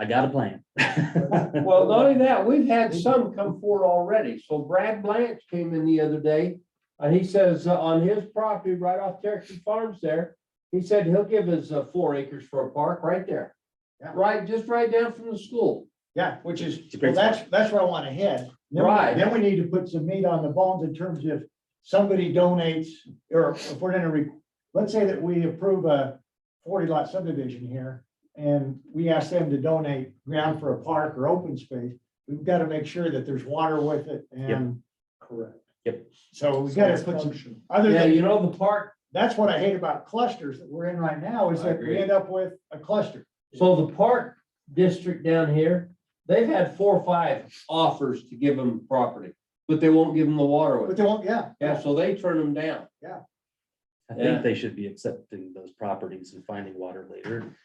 I got a plan. Well, not only that, we've had some come forward already. So Brad Blanch came in the other day. And he says uh, on his property right off Cherokee Farms there, he said he'll give us uh, four acres for a park right there. Yeah. Right, just right down from the school. Yeah, which is, a well, great that's, that's where I want to head. Then we- Right. Then we need to put some meat on the bones in terms of somebody donates, or if we're gonna re, let's say that we approve a forty lot subdivision here. And we ask them to donate ground for a park or open space, we've got to make sure that there's water with it and. Correct. Yep. So we gotta put some, other Yeah, than, you know, the park, that's what I hate about clusters that we're in right now, is I that we agree. end up with a cluster. so the park district down here, they've had four or five offers to give them property. But they won't give them the water But with. they won't, yeah. Yeah, so they turn them down. I Yeah. think they should be accepting those properties and finding water later.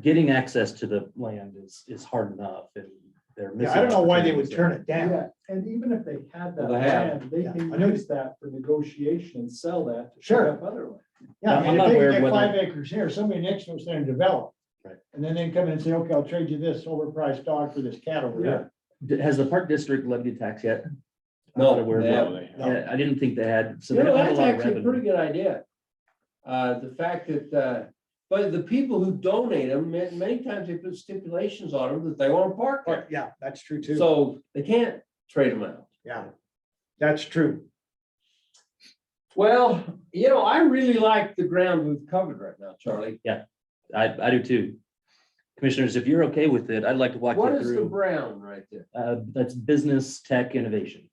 Getting access to the land is, is hard enough and they're Yeah, missing. I don't know why they would turn it down. Yeah, and even if they had that Well, they have. land, they Yeah. can I know. use that for negotiation and sell that to Sure. shore up other land. Yeah, I'm- I I'm mean, if not they aware can get of whether- five acres here, somebody next to us there and develop. Right. And then they come in and say, okay, I'll trade you this overpriced dog for this cat over here. down. Has the park district levied a tax yet? I'm No, not aware of they that. haven't. No. Yeah, I didn't think they had, so You they know, don't have a that's lot of actually a pretty revenue. good idea. Uh, the fact that, uh, but the people who donate them, ma- many times they put stipulations on them that they want to park But there. yeah, that's true too. So they can't trade them out. Yeah, that's true. Well, you know, I really like the ground we've covered right now, Charlie. I, I do too. Commissioners, if you're okay with it, I'd like to walk What you is the through, brown right there? uh, that's business tech innovation.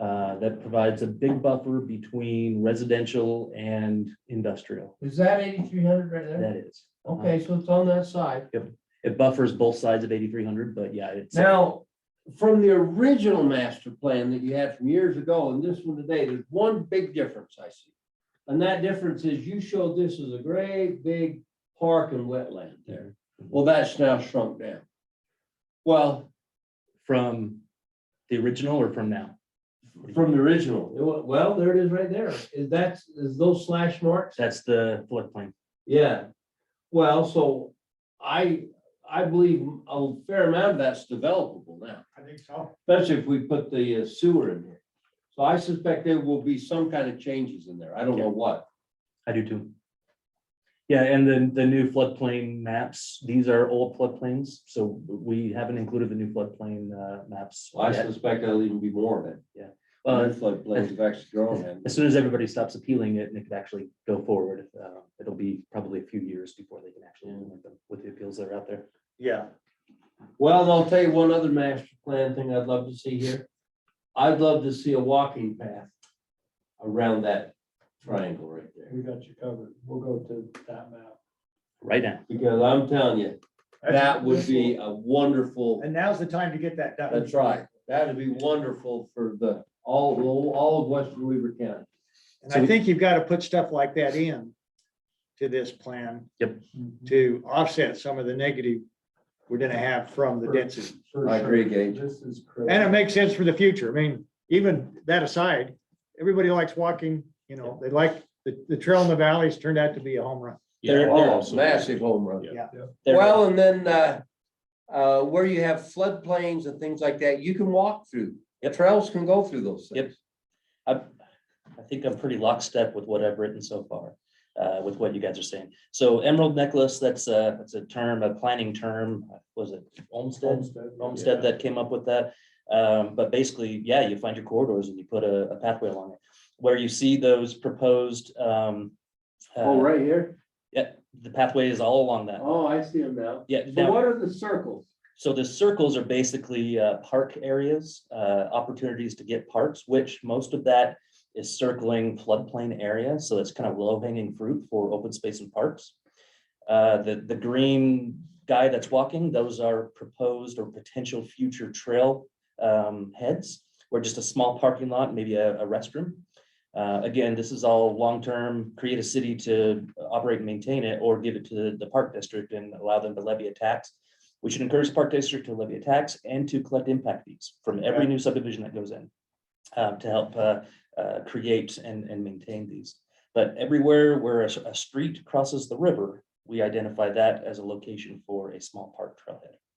Uh, that provides a big buffer between residential and industrial. Is that eighty-three hundred right That is. Okay, so it's on that side. It buffers both sides of eighty-three hundred, but yeah, it's. Now, from the original master plan that you had from years ago and this one today, there's one big difference I see. And that difference is you showed this as a great big park and wetland there. Well, that's now shrunk down. Well, From the original or from now? from the original, it wa- well, there it is right there. Is that, is those slash marks? That's the floodplain. Yeah. Well, so I, I believe a fair amount of that's developable now. I think so. Especially if we put the uh, sewer in here. So I suspect there will be some kind of changes in there. I don't know what. I do too. Yeah, and then the new floodplain maps, these are old floodplains, so we haven't included the new floodplain uh, maps. I yet. suspect there'll even be more of it. Uh, The floodplains have actually grown. haven't As they? soon as everybody stops appealing it and it can actually go forward, uh, it'll be probably a few years before they can actually implement them with the appeals that are out there. Yeah. Well, and I'll tell you one other master plan thing I'd love to see here. I'd love to see a walking path around that triangle right there. We got you covered. We'll go to that map. Right now, Because I'm telling you, that's- that would be a wonderful, And now's the time to get that done. that's right. That'd be wonderful for the, all, all of western Weaver County. And I think you've got to put stuff like that in to this plan. Yep. To offset some of the negative we're gonna have from the density. For I sure. agree, Gage. This is And it crazy. makes sense for the future. I mean, even that aside, everybody likes walking, you know, they like, the, the trail in the valleys turned out to be a home run. They're- Oh, massive home run. There- Well, and then, uh, uh, where you have floodplains and things like that, you can walk through. Trails can go through those Yep. things. I think I'm pretty lockstep with what I've written so far, uh, with what you guys are saying. So Emerald Necklace, that's a, that's a term, a planning term, was it Olmsted? Homestead. Olmsted that came up with that. Um, but basically, yeah, you find your corridors and you put a, a pathway along it. Where you see those proposed, um, Oh, uh, right here. the pathway is all along that. Oh, I see them now. Yeah, So now- what are the circles? so the circles are basically uh, park areas, uh, opportunities to get parks, which most of that is circling floodplain area. So it's kind of low hanging fruit for open space and parks. Uh, The, the green guy that's walking, those are proposed or potential future trail um, heads, where just a small parking lot, maybe a a restroom. Uh, Again, this is all long-term, create a city to operate and maintain it, or give it to the- the park district and allow them to levy a tax. We should encourage Park District to levy a tax and to collect impact fees from every Okay. new subdivision that goes in um, to help uh, uh, create and, and maintain these. But everywhere where a, s- a street crosses the river, we identify that as a location for a small park trailhead.